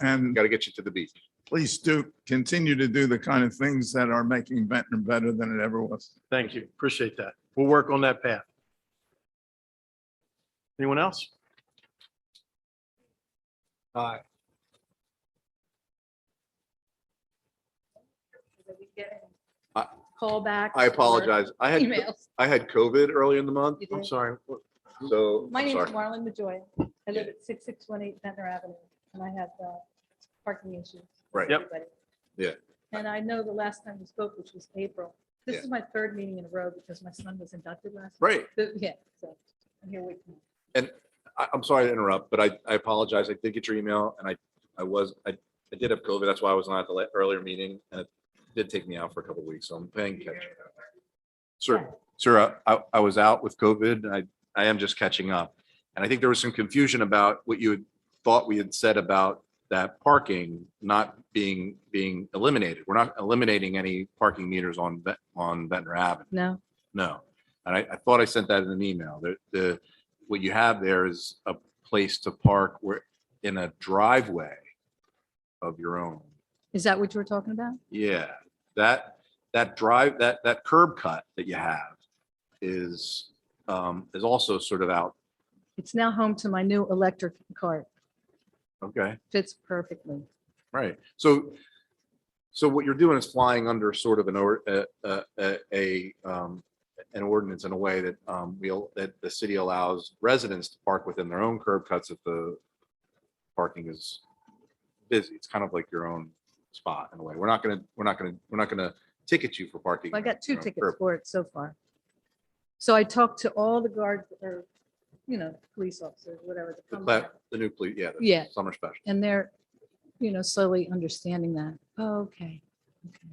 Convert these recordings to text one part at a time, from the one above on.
And Got to get you to the beach. please do continue to do the kind of things that are making Ventnor better than it ever was. Thank you. Appreciate that. We'll work on that path. Anyone else? Aye. we get I- Callbacks. I or apologize. I had, Emails. I had COVID early in the month, You I'm did. sorry. so. My I'm name is sorry. Marlon Majoy. I live at six six one eight Ventnor Avenue and I have uh, parking issues. with Right. Yep. everybody. Yeah. And I know the last time we spoke, which was April, this Yeah. is my third meeting in a row because my son was inducted last. month. Right. But, Yeah, so I'm here with you. I, I'm sorry to interrupt, but I, I apologize. I did get your email and I, I was, I, I did have COVID. That's why I was not at the la- earlier meeting and it did take me out for a couple of weeks. So I'm paying catch. up. Sir, sir, uh, I, I was out with COVID and I, I am just catching up. And I think there was some confusion about what you had thought we had said about that parking not being, being eliminated. We're not eliminating any parking meters on, Ven- on Ventnor Avenue. No, No. And I, I thought I sent that in an email. The, the, what you have there is a place to park where, in a driveway of your own. is that what you were talking about? Yeah, that, that drive, that, that curb cut that you have is, um, is also sort of out. It's now home to my new electric cart. Okay, Fits perfectly. right. So, so what you're doing is flying under sort of an, or, a, a- a, a, um, an ordinance in a way that, um, we'll, that the city allows residents to park within their own curb cuts if the parking is busy. It's kind of like your own spot in a way. We're not gonna, we're not gonna, we're not gonna ticket you for parking. Well, I got two on a tickets curb. for it so far. So I talked to all the guards or, you know, police officers, whatever. that The come cla- out, the new police, yeah. the Um, Yeah. Summer special. And they're, you know, slowly understanding that. Oh, okay. okay.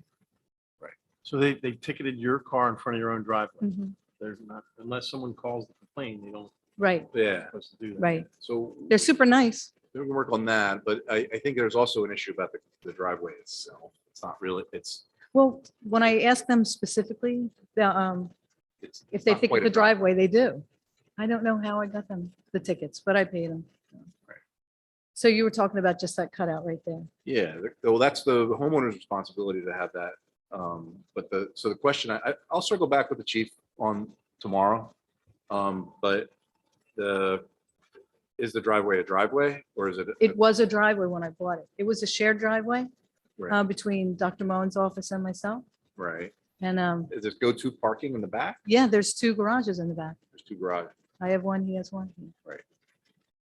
So they, they ticketed your car in front of your own driveway. Mhm. There's not, unless someone calls the complaint, they don't, Right, Yeah, they're supposed to do that. right. so. They're super nice. We can work on that, but I, I think there's also an issue about the, the driveway itself. It's not really, it's, Well, when I ask them specifically, the, um, it's. if they not think quite of a the drive- driveway, they do. I don't know how I got them the tickets, but I paid them. So you were talking about just that cutout right there. Yeah, the- well, that's the homeowner's responsibility to have that. Um, but the, so the question, I, I- I'll circle back with the chief on tomorrow. Um, but the, is the driveway a driveway or is it? It was a driveway when I bought it. It was a shared driveway Right. uh, between Dr. Moen's office and myself. Right, And um, is it go-to parking in the back? yeah, there's two garages in the back. There's two garage, I have one, he has one.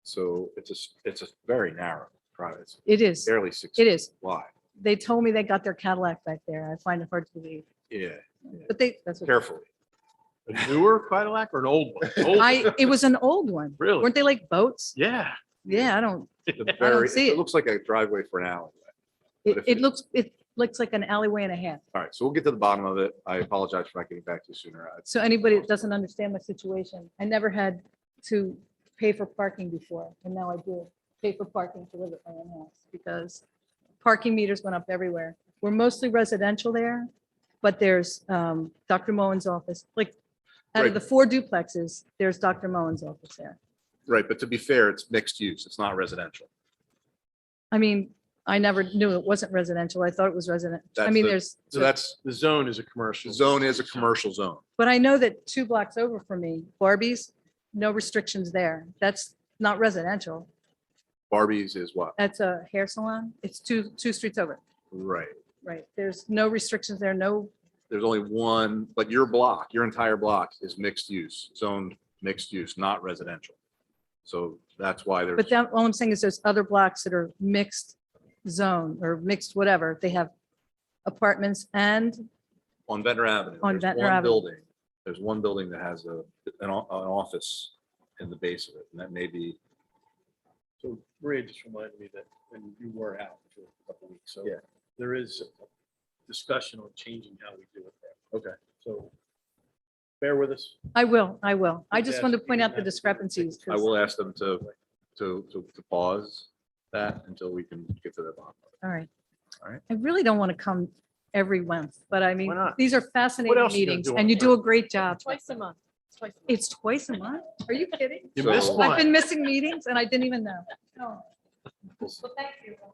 so it's a, s- it's a very narrow drive. It's It is, barely six it is. wide. They told me they got their Cadillac back there. I find it hard to believe, Yeah, but they, that's what. carefully. A newer Cadillac or an old one? Old one. I, it was an old one. Really? Weren't they like boats? Yeah. Yeah, I don't, The don't very, see it it. looks like a driveway for an alley. But it, if it it- looks, it looks like an alleyway and a half. All right, so we'll get to the bottom of it. I apologize for not getting back to you sooner. I- So anybody that doesn't understand my situation, I never had to pay for parking before, and now I do pay for parking to live at my own house because parking meters went up everywhere. We're mostly residential there, but there's um, Dr. Moen's office, like, out Right. of the four duplexes, there's Dr. Moen's office there. Right, but to be fair, it's mixed use. It's not residential. I mean, I never knew it wasn't residential. I thought it was resident. I That's mean, the- there's, So that's, The zone is a commercial. zone is a commercial zone. but I know that two blocks over from me, Barbie's, no restrictions there. That's not residential. Barbies is what? That's a hair salon. It's two, two streets over. Right. Right. There's no restrictions there, no, There's only one, but your block, your entire block is mixed use, zoned mixed use, not residential. So that's why there's, but that, all I'm saying is there's other blocks that are mixed zone or mixed whatever. They have apartments and, on Ventnor Avenue. On there's Ventnor one Avenue. Building, there's one building that has a, an, o- an office in the base of it, and that may be So Maria just reminded me that, and you were out for a couple of weeks, so Yeah. there is discussion on changing how we do it there. Okay. So bear with us. I will, I will. I just Yes, wanted to you point can out the have- discrepancies. 'cause I will ask them to, to, to to pause that until we can get to the bottom of All right. All right. I really don't want to come every month, but I mean, not? these are fascinating else you gonna meetings do on and you the do a great job. Twice a month. Twice a month. It's twice a month? Are you kidding? You So- missed I've one. I've been missing meetings and I didn't even know. it. Well, thank you.